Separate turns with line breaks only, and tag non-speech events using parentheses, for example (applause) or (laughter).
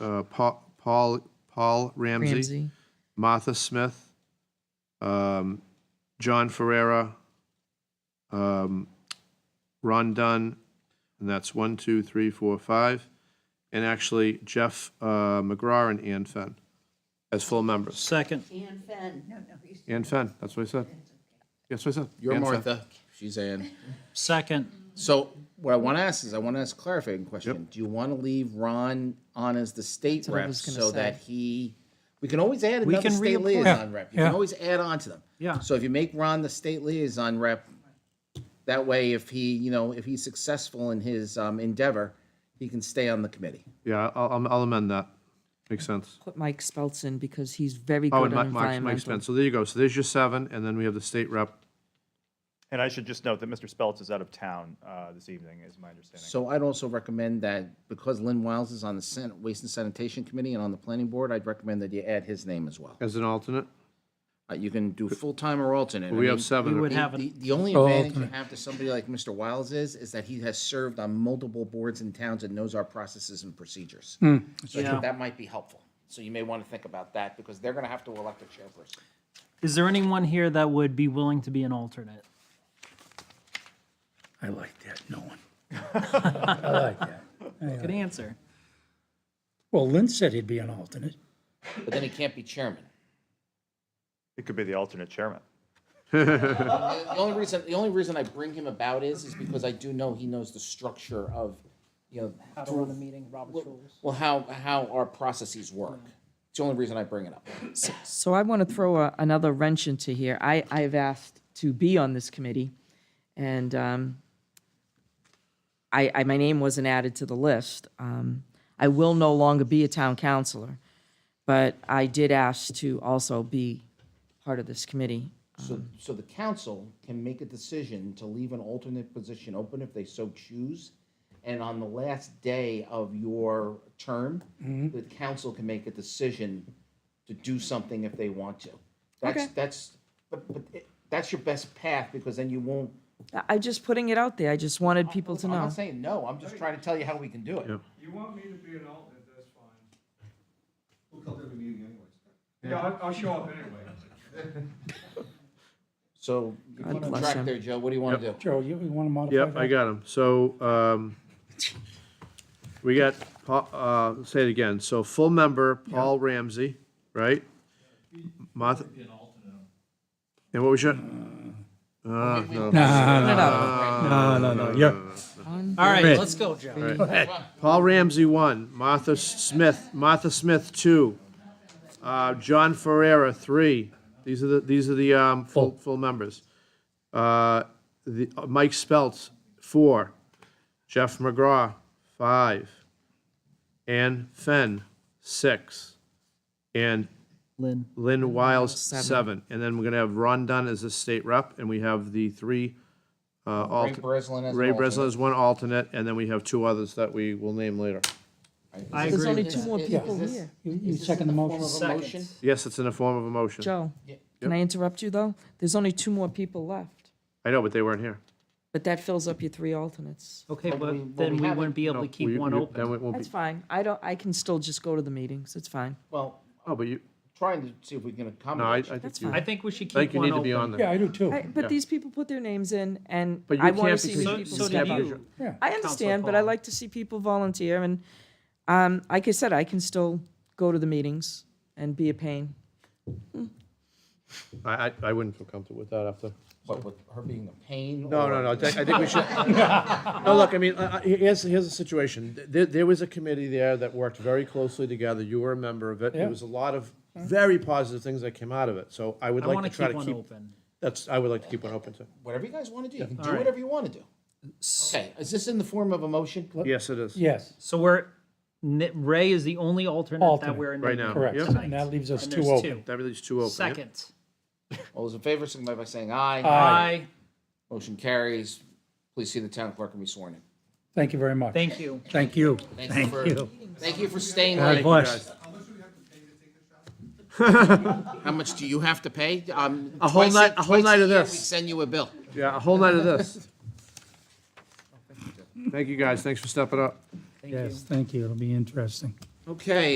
uh, Pa- Paul, Paul Ramsey, Martha Smith, um, John Ferrera, um, Ron Dunn, and that's one, two, three, four, five, and actually Jeff uh, McGraw and Ann Fenn as full members.
Second,
Ann Fenn.
Ann Fenn, that's what I said. That's what I said.
You're
Ann Fenn.
Martha. She's Ann.
second,
So what I want to ask is, I want to ask a clarifying question. Do you want to leave Ron on as the state
what I
rep
was gonna
so
say.
that he, we can always add
We
another
can
state
reappoint.
liaison rep. You can
yeah.
always add on to them.
Yeah.
So if you make Ron the state liaison rep, that way if he, you know, if he's successful in his um, endeavor, he can stay on the committee.
Yeah, I'll, I'll- I'll amend that. Makes sense.
Put Mike Speltz in because he's very
Oh, and
good
Mike,
on
Mike Mike
environmental.
Spence. So there you go. So there's your seven, and then we have the state rep.
And I should just note that Mr. Speltz is out of town uh, this evening, is my understanding.
So I'd also recommend that because Lynn Wiles is on the Senate Waste and Sanitation Committee and on the Planning Board, I'd recommend that you add his name as well.
As an alternate?
Uh, You can do full-time or alternate. I
We
mean,
have
we
seven.
would
The,
have,
the-
an
the only
Oh,
advantage you
alternate.
have to somebody like Mr. Wiles is, is that he has served on multiple boards and towns and knows our processes and procedures. So I
Yeah.
think that might be helpful. So you may want to think about that because they're going to have to elect a chairperson.
is there anyone here that would be willing to be an alternate?
I like that, no one. I like (laughs) that.
Good answer.
Well, Lynn said he'd be an alternate.
But then he can't be chairman.
It could be the alternate chairman.
The the only reason, the only reason I bring him about is, is because I do know he knows the structure of, you know,
How to run a meeting, Robert's rules.
well, how, how our processes work. It's the only reason I bring it up.
So I want to throw a- another wrench into here. I, I've asked to be on this committee, and um, I, I, my name wasn't added to the list. Um, I will no longer be a town councillor, but I did ask to also be part of this committee.
So, so the council can make a decision to leave an alternate position open if they so choose. And on the last day of your term,
Mm-hmm.
the council can make a decision to do something if they want to. That's,
Okay.
that's, but, but it- that's your best path because then you won't,
I- I'm just putting it out there. I just wanted people to
I'm
know.
not saying no, I'm just trying to tell you how we can do it.
You want me to be an alternate, that's fine. We'll come to every meeting anyways. Yeah, I'll, I'll show up anyway.
So you
God
put on
bless
track
him.
there, Joe, what do you want to do?
Joe, you want to modify that?
Yep, I got them. So um, we got, Pa- uh, say it again. So full member, Paul Ramsey, right? Martha. And what was your,
No,
Put it out.
no, no, no, you're,
All right,
Red.
let's go, Joe.
Paul Ramsey, one. Martha Smith, Martha Smith, two. Uh, John Ferrera, three. These are the, these are the um, full, full members. Uh, the- uh, Mike Speltz, four. Jeff McGraw, five. Ann Fenn, six. And
Lynn,
Lynn Wiles,
Seven.
seven. And then we're going to have Ron Dunn as the state rep, and we have the three. uh,
Ray
alter-
Breslin as an
Ray
alternate.
Breslin is one alternate, and then we have two others that we will name later.
I
There's
agree
only
with
two
that.
more
Is-
people
is this-
here.
you- you
is this
second
in
the
form
motion?
of a
Second.
motion?
Yes, it's in the form of a motion.
Joe, can I interrupt you, though? There's only two more people left,
I know, but they weren't here.
but that fills up your three alternates.
Okay,
we- well,
but then
we
we
haven't-
wouldn't be able
No,
to keep
we-
one
we- Then
open.
it won't
That's
be,
fine. I don't, I can still just go to the meetings. It's fine.
Well,
oh, but you,
trying to see if we can
no, I, I
accommodate. you.
think
That's
you,
I
I
think we should keep
think you
one
need to be
open.
on
Yeah,
there.
I do too.
I- But these people put their names in, and
But you
I want to
can't
see
because-
people
So,
People
so
step
do
step up.
up.
you.
Yeah.
I understand, but I
Paul.
like to see people volunteer, and, um, like I said, I can still go to the meetings and be a pain.
I, I- I wouldn't feel comfortable with that after.
But with her being a pain.
No,
or-
no, no, I think I think we (laughs) should. No, look, I mean, I- I- here's, here's the situation. There, there was a committee there that worked very closely together. You were a member of it. There
Yeah.
was a lot of very positive things that came out of it. So I would
I
like
want
to
to
try
keep
to
one
keep,
open.
that's, I would like to keep one open too.
Whatever you guys want to do, you can do
Alright.
whatever you want to do. Okay, is this in the form of a motion?
Yes, it is.
Yes,
So we're, Ni- Ray is the only alternate that
Alternate.
we're in.
Right now.
correct.
Yep.
And that leaves us
And
two
there's
open.
two.
That really is two open. yeah?
Second.
All those in favor, signify by saying aye.
Aye.
Aye,
Motion carries. Please see the town clerk and be sworn in.
Thank you very much.
thank you.
Thank you.
Thank you for, thank you for staying
God
late.
bless.
How much do you have to pay? Um,
A whole
twice
night- a whole
twice
night of
year We
this.
send you a bill.
Yeah, a whole night of this. Thank you, guys. Thanks for stepping up.
Yes, thank you. It'll be interesting.
Okay,